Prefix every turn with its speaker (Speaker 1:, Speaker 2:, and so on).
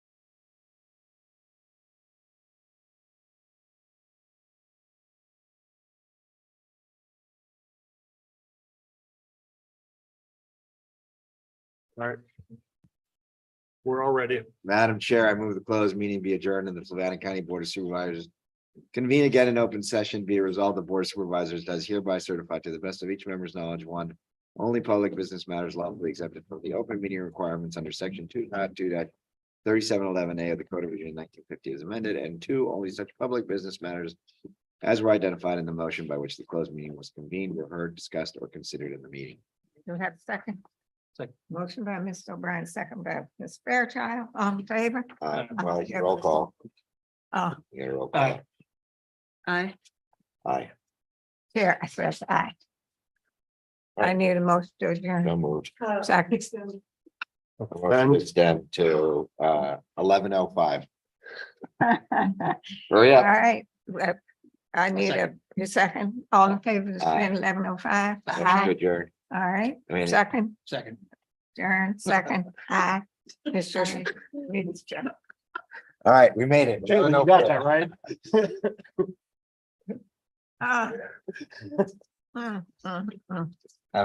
Speaker 1: We're all ready.
Speaker 2: Madam Chair, I move the closed meeting be adjourned and the Savannah County Board of Supervisors. Convene again in open session, be resolved, the Board of Supervisors does hereby certify to the best of each member's knowledge, one. Only public business matters lawfully accepted from the open meeting requirements under section two, not two dot. Thirty-seven eleven A of the Code of Virginia nineteen fifty is amended, and two, only such public business matters. As were identified in the motion by which the closed meeting was convened, were heard, discussed, or considered in the meeting.
Speaker 3: Do we have a second?
Speaker 1: Second.
Speaker 3: Motion by Mr. O'Brien, second by Ms. Fairchild, all in favor?
Speaker 2: Uh, well, roll call,
Speaker 3: Uh,
Speaker 2: you gotta roll call.
Speaker 4: Aye.
Speaker 2: Aye,
Speaker 3: Chair, I says aye. I
Speaker 2: Aye.
Speaker 3: need a motion to adjourn.
Speaker 2: no move.
Speaker 3: Second.
Speaker 2: Motion is down to uh eleven oh five. Hurry
Speaker 3: All
Speaker 2: up.
Speaker 3: right. well, I need a a second, all in favor, it's
Speaker 2: Aye.
Speaker 3: been eleven oh five.
Speaker 2: Motion to
Speaker 3: All
Speaker 2: adjourn.
Speaker 3: right,
Speaker 2: I mean,
Speaker 3: second,
Speaker 1: Second.
Speaker 3: adjourn, second, aye. Mr. Chair.
Speaker 2: all right, we made it.
Speaker 1: You got that, right?
Speaker 3: Ah. Mm, mm, mm.